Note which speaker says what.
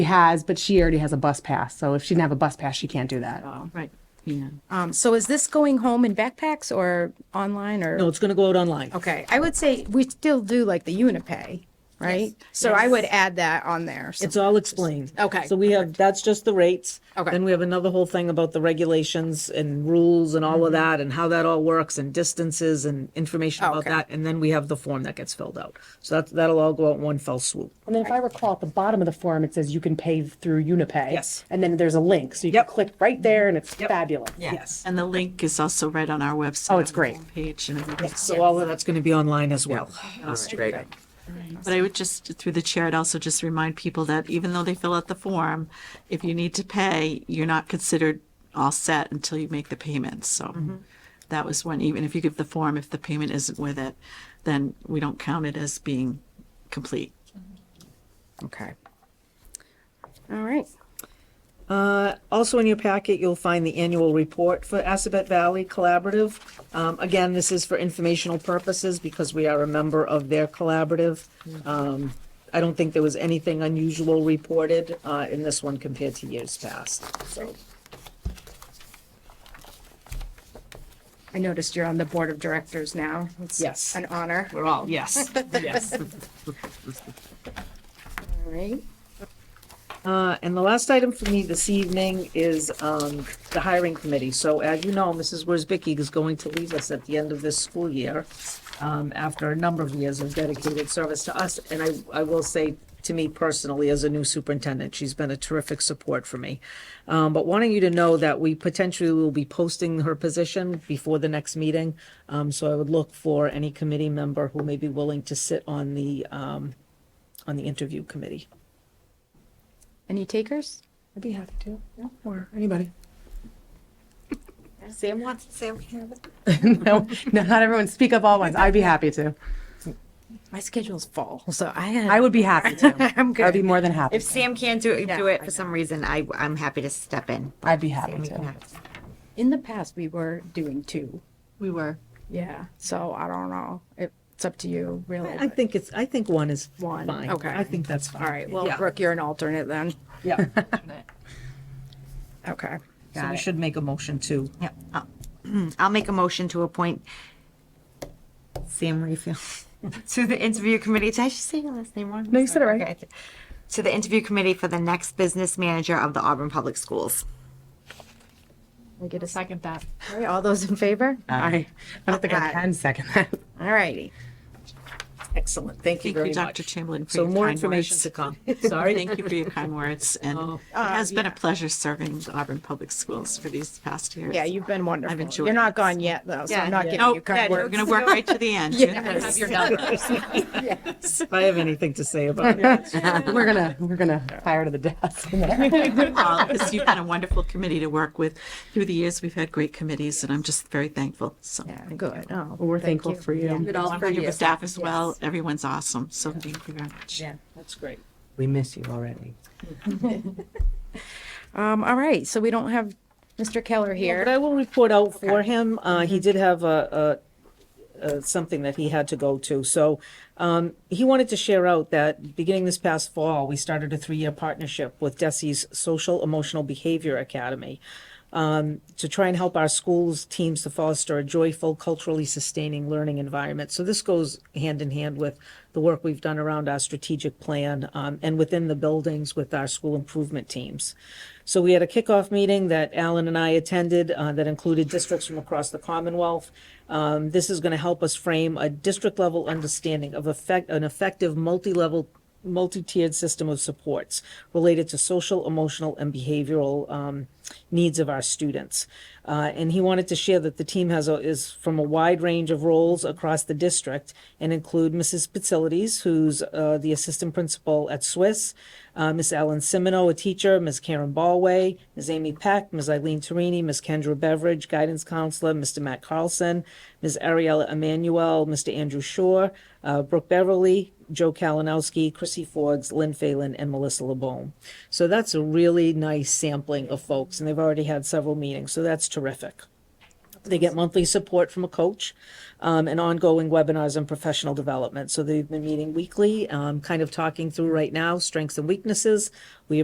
Speaker 1: has, but she already has a bus pass. So if she didn't have a bus pass, she can't do that.
Speaker 2: Right. Yeah.
Speaker 3: Um, so is this going home in backpacks or online or?
Speaker 2: No, it's going to go out online.
Speaker 3: Okay, I would say we still do like the Unipay, right? So I would add that on there. So-
Speaker 2: It's all explained.
Speaker 3: Okay,
Speaker 2: So we have, that's just the rates.
Speaker 3: Okay.
Speaker 2: Then we have another whole thing about the regulations and rules and all of
Speaker 3: Mm-hmm.
Speaker 2: that and how that all works and distances and information about
Speaker 3: Okay.
Speaker 2: that. And then we have the form that gets filled out. So that, that'll all go out in one fell swoop.
Speaker 1: And then if I recall, at the bottom of the form, it says you can pay through Unipay.
Speaker 2: Yes.
Speaker 1: And then there's a link. So you
Speaker 2: Yep.
Speaker 1: can click right there and it's fabulous.
Speaker 2: Yes.
Speaker 4: And the link is also right on our website.
Speaker 1: Oh, it's
Speaker 4: on the
Speaker 1: great.
Speaker 4: Page and everything.
Speaker 2: So all of that's going to be online as well.
Speaker 5: That's great.
Speaker 4: But I would just, through the chair, I'd also just remind people that even though they fill out the form, if you need to pay, you're not considered all set until you make the payment. So
Speaker 3: Mm-hmm.
Speaker 4: that was one, even if you give the form, if the payment isn't with it, then we don't count it as being complete.
Speaker 3: Okay. All right.
Speaker 2: Uh, Also in your packet, you'll find the annual report for Assabet Valley Collaborative. Um, Again, this is for informational purposes because we are a member of their collaborative. Um, I don't think there was anything unusual reported uh, in this one compared to years past. So
Speaker 3: I noticed you're on the board of directors now. It's
Speaker 2: Yes.
Speaker 3: An honor.
Speaker 2: we're all, yes, yes.
Speaker 3: All right.
Speaker 2: Uh, And the last item for me this evening is um, the hiring committee. So as you know, Mrs. Worsbicky is going to leave us at the end of this school year um, after a number of years of dedicated service to us. And I, I will say, to me personally, as a new superintendent, she's been a terrific support for me. Um, But wanting you to know that we potentially will be posting her position before the next meeting. Um, So I would look for any committee member who may be willing to sit on the, um, on the interview committee.
Speaker 3: Any takers?
Speaker 1: I'd be happy to. Or anybody.
Speaker 3: Sam wants, Sam.
Speaker 1: no, no, not everyone speak up all at once. I'd be happy to.
Speaker 3: My schedule's full, so I
Speaker 1: I
Speaker 3: had,
Speaker 1: would be happy to.
Speaker 3: I'm
Speaker 1: I'd be
Speaker 3: good.
Speaker 1: more than happy.
Speaker 5: If
Speaker 1: to.
Speaker 5: Sam can't do it, do
Speaker 3: I
Speaker 5: it for some reason, I, I'm happy to step in.
Speaker 1: I'd be happy
Speaker 5: We can
Speaker 1: to.
Speaker 5: have-
Speaker 3: In the past, we were doing two.
Speaker 4: We were.
Speaker 3: Yeah, so I don't know. It's up to you, really.
Speaker 2: I think it's, I think one is
Speaker 3: One,
Speaker 2: fine.
Speaker 3: okay.
Speaker 2: I think that's fine.
Speaker 3: All right, well,
Speaker 2: Yeah.
Speaker 3: Brooke, you're an alternate then.
Speaker 2: Yeah.
Speaker 3: Okay.
Speaker 2: So we should make a motion to,
Speaker 5: Yep. I'll- I'll make a motion to appoint Sam Refill to the interview committee. Did I just say your last name wrong? No,
Speaker 1: you said it right.
Speaker 5: To the interview committee for the next business manager of the Auburn Public Schools.
Speaker 3: We get a second that. All right, all those in favor?
Speaker 1: I, I don't think I can second that.
Speaker 3: All righty.
Speaker 2: excellent, thank you
Speaker 4: Thank you,
Speaker 2: very much.
Speaker 4: Dr. Chamberlain, for
Speaker 2: So
Speaker 4: your
Speaker 2: more
Speaker 4: kind
Speaker 2: information
Speaker 4: words.
Speaker 2: to come, sorry. Oh,
Speaker 4: Thank you for your kind words. And it
Speaker 3: uh,
Speaker 4: has been a pleasure serving the Auburn Public Schools for these past years.
Speaker 3: Yeah, you've been wonderful.
Speaker 4: enjoyed
Speaker 3: You're not
Speaker 4: it.
Speaker 3: gone yet, though, so
Speaker 5: Yeah,
Speaker 3: I'm not
Speaker 5: yeah.
Speaker 3: giving
Speaker 4: No,
Speaker 3: you credit.
Speaker 4: we're going to work right to the end. You're gonna have your numbers.
Speaker 2: If I have anything to say about it.
Speaker 1: We're gonna, we're gonna fire to the death.
Speaker 4: all, because you've been a wonderful committee to work with. Through the years, we've had great committees, and I'm just very thankful. So
Speaker 3: Yeah, good. Oh,
Speaker 1: We're
Speaker 3: thank
Speaker 1: thankful for you.
Speaker 4: good all for your staff as well. Everyone's awesome. So thank you very much.
Speaker 2: That's great.
Speaker 6: We miss you already.
Speaker 3: Um, all right, so we don't have Mr. Keller
Speaker 2: But
Speaker 3: here.
Speaker 2: I will report out for him, uh,
Speaker 4: Mm-hmm.
Speaker 2: he did have a, a, a, something that he had to go to, so, um, he wanted to share out that beginning this past fall, we started a three-year partnership with Desi's Social Emotional Behavior Academy. um, to try and help our schools teams to foster a joyful, culturally sustaining learning environment. So this goes hand in hand with the work we've done around our strategic plan um, and within the buildings with our school improvement teams. So we had a kickoff meeting that Alan and I attended uh, that included districts from across the Commonwealth. Um, this is going to help us frame a district level understanding of effect, an effective multi level multi-tiered system of supports related to social, emotional, and behavioral um, needs of our students. Uh, and he wanted to share that the team has a, is from a wide range of roles across the district and include Mrs. Pitzilides, who's uh, the assistant principal at Swiss, uh, Miss Ellen Simino, a teacher, Ms. Karen Ballway, Ms. Amy Peck, Ms. Eileen Torini, Ms. Kendra Beveridge, guidance counselor, Mr. Matt Carlson, Ms. Ariella Emanuel, Mr. Andrew Shore, uh, Brooke Beverly, Joe Kalinowski, Chrissy Forbes, Lynn Phelan, and Melissa LeBone. So that's a really nice sampling of folks, and they've already had several meetings, so that's terrific. They get monthly support from a coach um, and ongoing webinars on professional development. So they've been meeting weekly, um, kind of talking through right now strengths and weaknesses. We